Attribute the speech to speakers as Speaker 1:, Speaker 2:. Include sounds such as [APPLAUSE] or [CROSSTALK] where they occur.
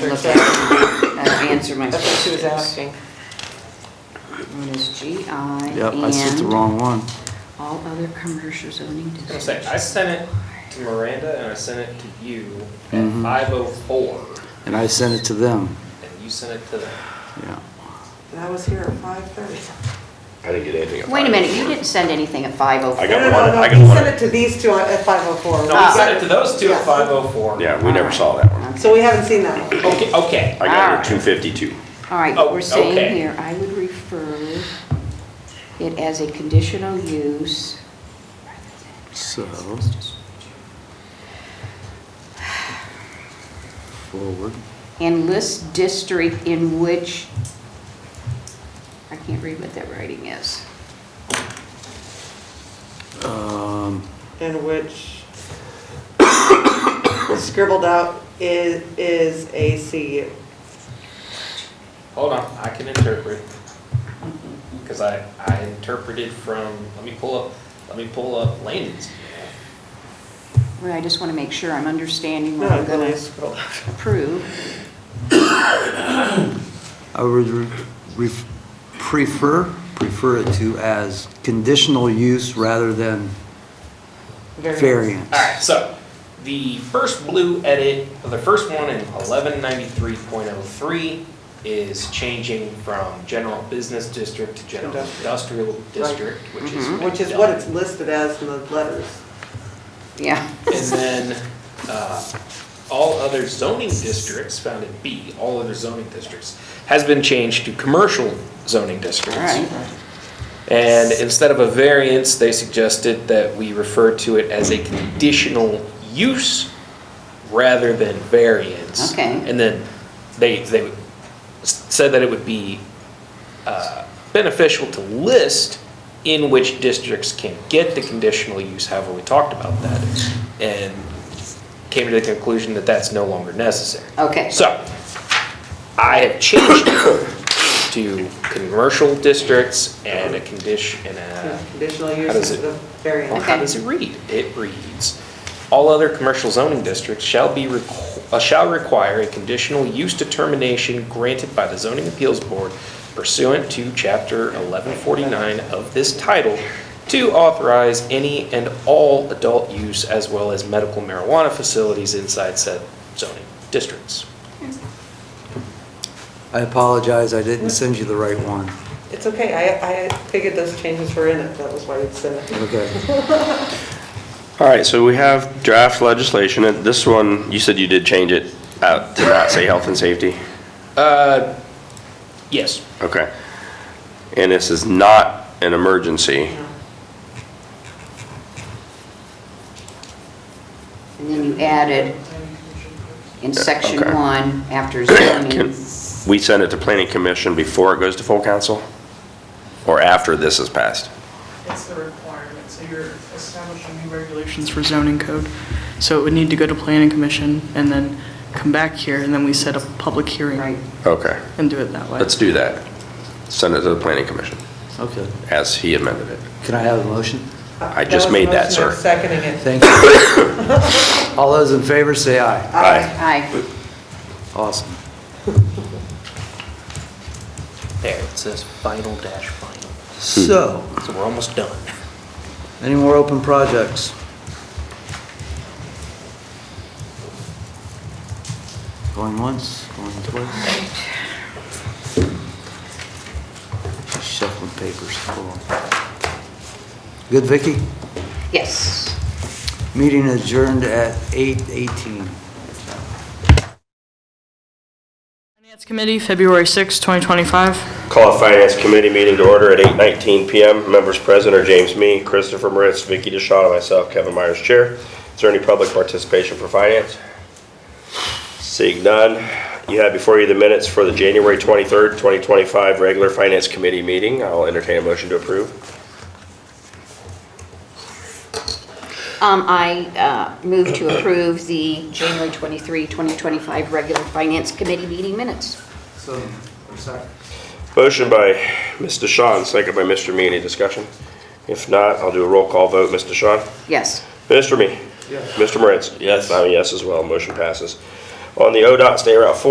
Speaker 1: her
Speaker 2: look
Speaker 1: text.
Speaker 2: and uh, answer my
Speaker 1: That's what she was
Speaker 2: questions.
Speaker 1: asking.
Speaker 2: One is GI
Speaker 3: Yep, that's just the
Speaker 2: and
Speaker 3: wrong one.
Speaker 2: all other commercial zoning
Speaker 4: I was gonna say, I
Speaker 2: districts.
Speaker 4: sent it to Miranda and I sent it to you at
Speaker 3: Mhm.
Speaker 4: five oh four,
Speaker 3: And I sent it to them,
Speaker 4: and you sent it to them.
Speaker 3: yeah.
Speaker 1: And I was here at five thirty.
Speaker 5: I didn't get anything.
Speaker 2: Wait a minute, you didn't send anything at
Speaker 5: I
Speaker 2: 5:04.
Speaker 5: got
Speaker 1: No, no,
Speaker 5: one,
Speaker 1: no,
Speaker 5: I
Speaker 1: he
Speaker 5: got
Speaker 1: sent
Speaker 5: one.
Speaker 1: it to these two at five oh four.
Speaker 4: No, we sent it to those two at five oh four.
Speaker 5: Yeah, we never saw that one.
Speaker 1: So we haven't seen that one.
Speaker 4: Okay, okay.
Speaker 5: I got
Speaker 2: Alright.
Speaker 5: your two fifty-two.
Speaker 2: All right,
Speaker 4: Oh,
Speaker 2: we're saying
Speaker 4: okay.
Speaker 2: here, I would refer it as a conditional use.
Speaker 3: So, forward.
Speaker 2: And list district in which, I can't read what that writing is.
Speaker 3: Um,
Speaker 1: In which [COUGHS] scribbled out is, is a CU.
Speaker 4: Hold on, I can interpret. Because I, I interpreted from, let me pull up, let me pull up Landon's.
Speaker 2: Well, I just want to make sure I'm understanding
Speaker 1: No,
Speaker 2: what I'm
Speaker 1: then
Speaker 2: going
Speaker 1: I
Speaker 2: to
Speaker 1: scrolled.
Speaker 2: approve.
Speaker 3: I would re- re- prefer, prefer it to as conditional use rather than variance.
Speaker 4: Alright, so the first blue edit, the first one in eleven ninety-three point oh three is changing from general business district to general industrial district, which is.
Speaker 1: Which is what it's listed as in the letters.
Speaker 2: Yeah,
Speaker 4: And then, uh, all other zoning districts found in B, all other zoning districts, has been changed to commercial zoning districts.
Speaker 2: all right.
Speaker 4: And instead of a variance, they suggested that we refer to it as a conditional use rather than variance.
Speaker 2: Okay.
Speaker 4: And then they, they s- said that it would be uh, beneficial to list in which districts can get the conditional use, however, we talked about that, and came to the conclusion that that's no longer necessary.
Speaker 2: Okay.
Speaker 4: So, I have changed it to commercial districts and a condition, and a,
Speaker 1: Conditional
Speaker 4: How
Speaker 1: use
Speaker 4: does it-
Speaker 1: of
Speaker 4: well,
Speaker 1: variance.
Speaker 4: how does it read? It reads, "All other commercial zoning districts shall be, requ- uh, shall require a conditional use determination granted by the zoning appeals board pursuant to chapter 1149 of this title to authorize any and all adult use as well as medical marijuana facilities inside said zoning districts."
Speaker 3: I apologize, I didn't send you the right one.
Speaker 1: It's okay, I, I figured those changes were in it, that was why you'd send it.
Speaker 3: Okay.
Speaker 5: All right, so we have draft legislation, and this one, you said you did change it out to not say health and safety?
Speaker 4: Uh, yes.
Speaker 5: Okay. And this is not an emergency.
Speaker 2: And then you added in section
Speaker 5: okay.
Speaker 2: one, after zoning,
Speaker 5: Can we send it to planning commission before it goes to full council? Or after this is passed?
Speaker 6: It's the requirement, so you're establishing new regulations for zoning code. So it would need to go to planning commission and then come back here, and then we set a public
Speaker 2: right,
Speaker 6: hearing
Speaker 5: Okay,
Speaker 6: and do it that way.
Speaker 5: let's do that. Send it to the planning commission
Speaker 3: Okay.
Speaker 5: as he amended it.
Speaker 3: Can I have a motion?
Speaker 5: I just made that,
Speaker 1: was a motion, I'm
Speaker 5: sir.
Speaker 1: Seconding it.
Speaker 3: Thank you. All those in favor, say aye.
Speaker 5: Aye.
Speaker 2: aye,
Speaker 3: Awesome.
Speaker 4: There, it says final dash final.
Speaker 3: So,
Speaker 4: So we're almost done.
Speaker 3: any more open projects? Going once, going twice. Shuffling papers, cool. Good, Vicky.
Speaker 2: yes.
Speaker 3: Meeting adjourned at 8:18.
Speaker 6: Finance Committee, February 6, 2025.
Speaker 5: Call a finance committee meeting to order at 8:19 PM. Members present are James Me, Christopher Moritz, Vicky DeShawn, and myself, Kevin Myers, Chair. Is there any public participation for finance? Seeing none, you have before you the minutes for the January 23rd, 2025 regular finance committee meeting. I'll entertain a motion to approve.
Speaker 2: Um, I, uh, move to approve the January 23, 2025 regular finance committee meeting minutes.
Speaker 3: So, I'm sorry.
Speaker 5: Motion by Ms. DeShawn, second by Mr. Me. Any discussion? If not, I'll do a roll call vote. Ms. DeShawn?
Speaker 2: Yes,
Speaker 5: Mr. Me? Yes. Mr. Moritz? Yes. I'm a yes as well. Motion passes. On the ODOT State Route 4